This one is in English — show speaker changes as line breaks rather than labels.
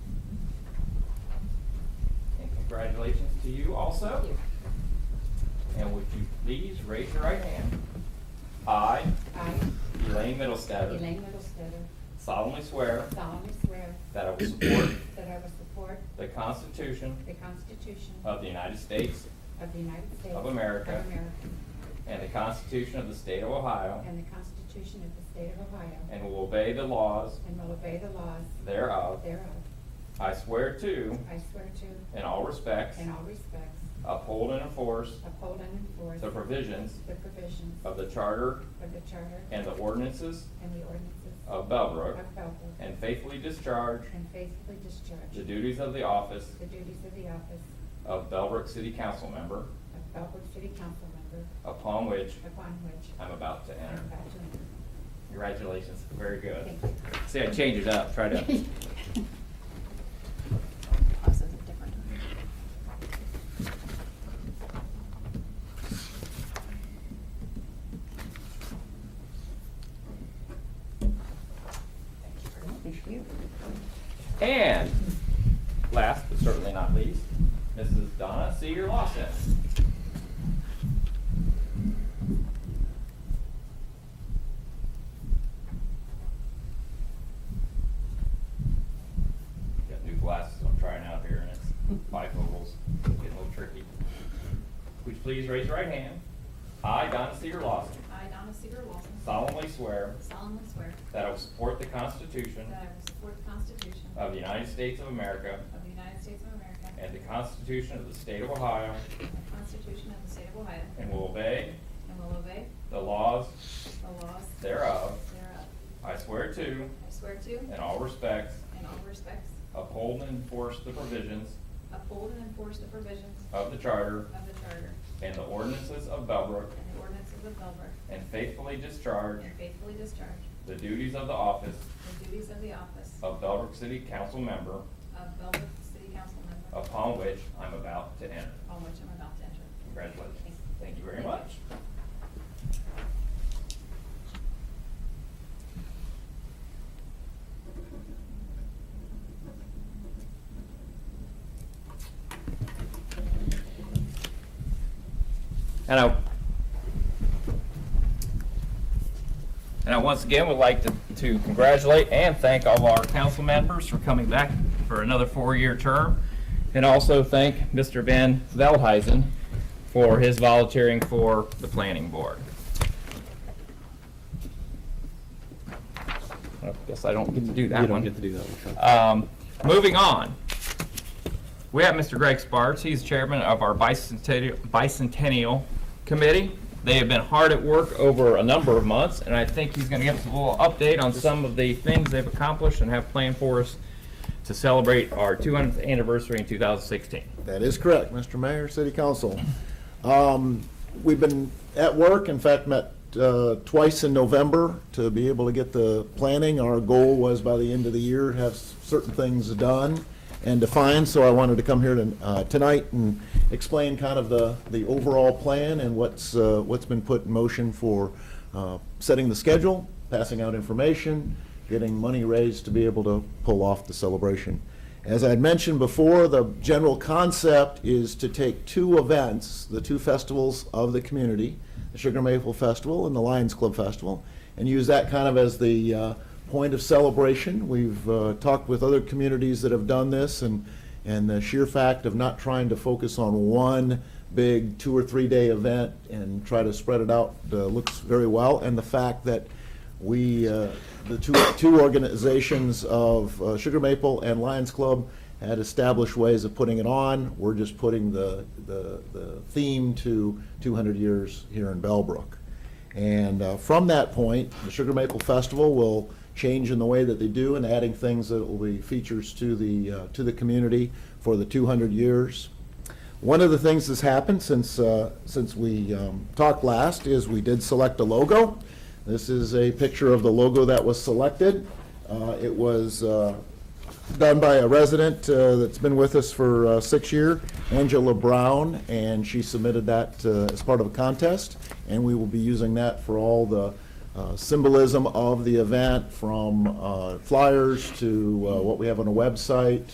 Congratulations to you also. And would you please raise your right hand? I,
I,
Elaine Middlestetter,
Elaine Middlestetter,
solemnly swear
solemnly swear
that I will support
that I will support
the Constitution
the Constitution
of the United States
of the United States
Of America.
of America,
and the Constitution of the State of Ohio,
and the Constitution of the State of Ohio,
and will obey the laws
and will obey the laws
thereof.
thereof.
I swear to,
I swear to,
in all respects,
in all respects,
uphold and enforce
uphold and enforce
the provisions
the provisions
of the Charter
of the Charter
and the ordinances
and the ordinances
of Bellbrook,
of Belleville,
and faithfully discharge
and faithfully discharge
the duties of the office
the duties of the office
of Bellbrook City Council Member,
of Belleville City Council Member,
upon which
upon which
I'm about to
I am
enter.
about to enter.
Congratulations, very good.
Thank you.
See, I changed it up, tried to.
Us is a different.
And last but certainly not least, Mrs. Donna Seeger Lawson. Got new glasses I'm trying out here and it's bifocals, getting a little tricky. Would you please raise your right hand? I, Donna Seeger Lawson,
I, Donna Seager Wilson,
solemnly swear
solemnly swear
that I will support the Constitution
that I will support the Constitution
of the United States of America
of the United States of America
And the Constitution of the State of Ohio.
and the Constitution of the State of Ohio,
And will obey
and will obey
the laws
the laws
thereof.
thereof.
I swear to,
I swear to,
in all respects,
in all respects,
uphold and enforce the provisions
uphold and enforce the provisions of
of the Charter
the Charter
and the ordinances of Bellbrook,
and the ordinances of Belleville,
and faithfully discharge
and faithfully discharge
the duties of the office
the duties of the office
of
of
Bellbrook City Council Member,
Belleville City Council Member,
upon which I'm about to enter.
on which I'm about to enter.
Congratulations. Thank you very
Thank you.
much. And I, and I once again would like to, to congratulate and thank all of our council members for coming back for another four-year term. And also thank Mr. Ben Veldheisen for his volunteering for the planning board. I guess I don't get to do that
You
one.
don't get to do that one.
Um, moving on, we have Mr. Greg Sparks. He's chairman of our bicentennial, bicentennial committee. They have been hard at work over a number of months, and I think he's going to give us a little update on some of the things they've accomplished and have planned for us to celebrate our 200th anniversary in 2016.
That is correct, Mr. Mayor, City Council. Um, We've been at work, in fact, met uh, twice in November to be able to get the planning. Our goal was by the end of the year, have s- certain things done and defined, so I wanted to come here to- uh, tonight and explain kind of the, the overall plan and what's, uh, what's been put in motion for uh, setting the schedule, passing out information, getting money raised to be able to pull off the celebration. As I had mentioned before, the general concept is to take two events, the two festivals of the community, the Sugar Maple Festival and the Lions Club Festival, and use that kind of as the uh, point of celebration. We've uh, talked with other communities that have done this, and, and the sheer fact of not trying to focus on one big two or three day event and try to spread it out uh, looks very well, and the fact that we, uh, the two, two organizations of uh, Sugar Maple and Lions Club had established ways of putting it on. We're just putting the, the, the theme to 200 years here in Bellbrook. And uh, from that point, the Sugar Maple Festival will change in the way that they do and adding things that will be features to the, uh, to the community for the 200 years. One of the things that's happened since, uh, since we um, talked last is we did select a logo. This is a picture of the logo that was selected. Uh, It was uh, done by a resident uh, that's been with us for uh, six years, Angela Brown, and she submitted that uh, as part of a contest, and we will be using that for all the uh, symbolism of the event, from uh, flyers to uh, what we have on a website,